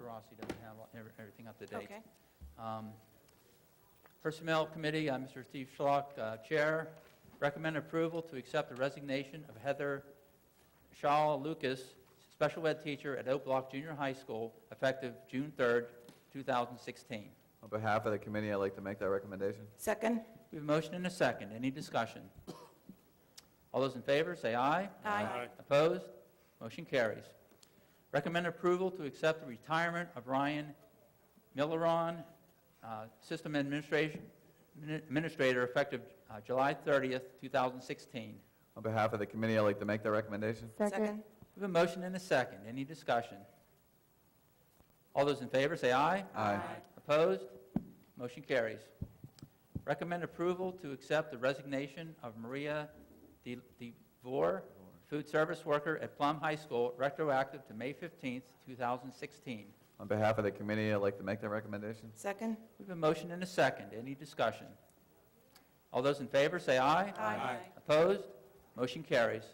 Rossi doesn't have every- everything up to date. Okay. Um, Personnel Committee, I'm Mr. Steve Schlock, uh, Chair. Recommend approval to accept the resignation of Heather Shaw Lucas, special ed teacher at Oak Block Junior High School, effective June 3rd, 2016. On behalf of the committee, I'd like to make that recommendation. Second? We have a motion and a second. Any discussion? All those in favor, say aye. Aye. Aye. Opposed? Motion carries. Recommend approval to accept the retirement of Ryan Milleron, uh, System Administration- Administrator, effective uh, July 30th, 2016. On behalf of the committee, I'd like to make that recommendation. Second? We have a motion and a second. Any discussion? All those in favor, say aye. Aye. Opposed? Motion carries. Recommend approval to accept the resignation of Maria De DeVore, food service worker at Plum High School, retroactive to May 15th, 2016. On behalf of the committee, I'd like to make that recommendation. Second? We have a motion and a second. Any discussion? All those in favor, say aye. Aye. Opposed? Motion carries.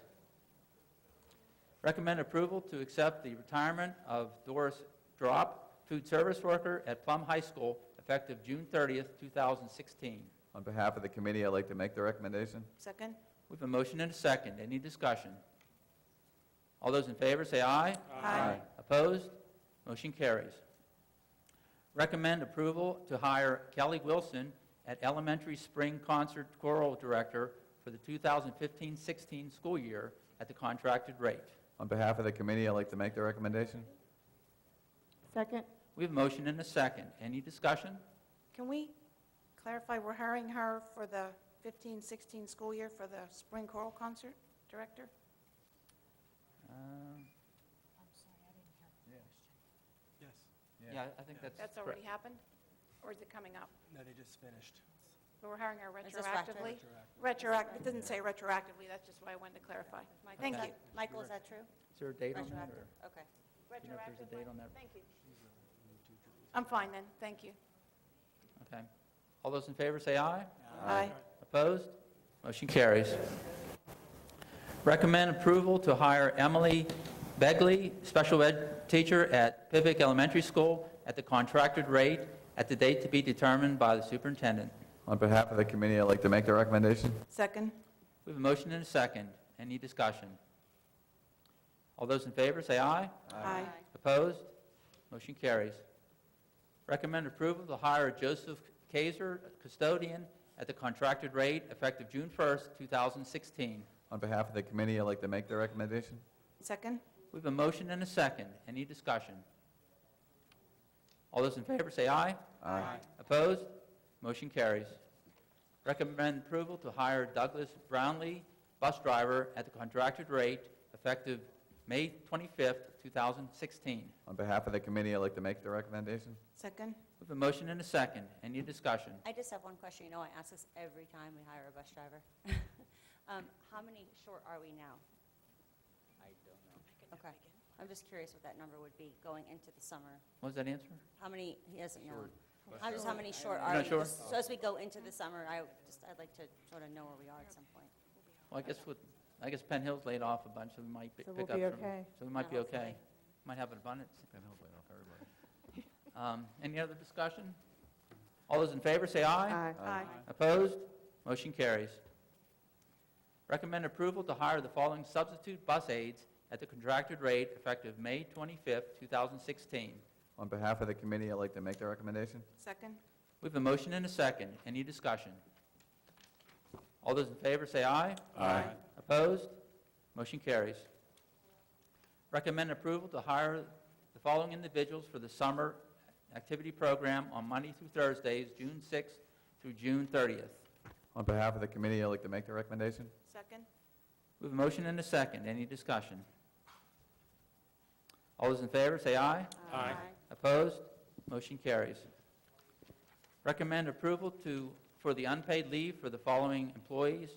Recommend approval to accept the retirement of Doris Drop, food service worker at Plum High School, effective June 30th, 2016. On behalf of the committee, I'd like to make the recommendation. Second? We have a motion and a second. Any discussion? All those in favor, say aye. Aye. Opposed? Motion carries. Recommend approval to hire Kelly Wilson at Elementary Spring Concert Choral Director for the 2015-16 school year at the contracted rate. On behalf of the committee, I'd like to make the recommendation. Second, We have a motion and a second. Any discussion? Can we clarify, we're hiring her for the 15, 16 school year for the spring choral concert director? Um, Yes. Yeah, I think that's... That's already happened? Or is it coming up? No, they just finished. We're hiring her Is this retro- retroactively? Retroactive. Retroact, it didn't say retroactively, that's just why I wanted to clarify. My- Thank Okay. you. Michael, is that true? Is there a date on that? Retroactive, okay. Do you know if there's a Retroactively. date on that? Thank you. She's, uh, moved to Jersey. I'm fine then, thank you. or- Okay. All those in favor, say aye. Aye. Opposed? Motion carries. Recommend approval to hire Emily Begley, special ed teacher at Pivot Elementary School, at the contracted rate, at the date to be determined by the superintendent. On behalf of the committee, I'd like to make the recommendation. Second? We have a motion and a second. Any discussion? All those in favor, say aye. Aye. Opposed? Motion carries. Recommend approval to hire Joseph Kaiser, custodian, at the contracted rate, effective June 1st, 2016. On behalf of the committee, I'd like to make the recommendation. Second? We have a motion and a second. Any discussion? All those in favor say aye. Aye. Opposed? Motion carries. Recommend approval to hire Douglas Brownlee, bus driver, at the contracted rate effective May 25th, 2016. On behalf of the committee, I'd like to make the recommendation. Second? We have a motion and a second. Any discussion? I just have one question. You know, I ask this every time we hire a bus driver. Um, How many short are we now? I don't know. Okay. I'm just curious what that number would be going into the summer. What was that answer? How many, he doesn't know. How, just how many short You're are we? not sure? Just So as we go into the summer, I just, I'd like to sort of know where we are at some point. Well, I guess with, I guess Penn Hill's laid off a bunch, so we might pi- So pick we'll up be some. okay. So we might be Yeah, okay. hopefully. Might have an abundance. Penn Hill's laid off everybody. Any other discussion? All those in favor, say aye. aye. Aye. Opposed? Motion carries. Recommend approval to hire the following substitute bus aides at the contracted rate effective May 25th, 2016. On behalf of the committee, I'd like to make the recommendation. Second? We have a motion and a second. Any discussion? All those in favor, say aye. Aye. Opposed? Motion carries. Recommend approval to hire the following individuals for the summer activity program on Monday through Thursdays, June 6th through June 30th. On behalf of the committee, I'd like to make the recommendation. Second? We have a motion and a second. Any discussion? All those in favor, say aye. Aye. Opposed? Motion carries. Recommend approval to, for the unpaid leave for the following employees,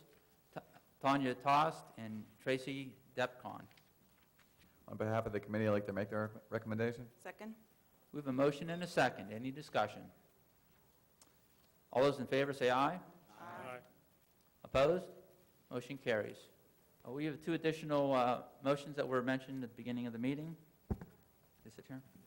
Ta- Tanya Tost and Tracy Depcon. On behalf of the committee, I'd like to make the rec- recommendation. Second? We have a motion and a second. Any discussion? All those in favor say aye. Aye. Opposed? Motion carries. Uh, We have two additional uh, motions that were mentioned at the beginning of the meeting. Is it here?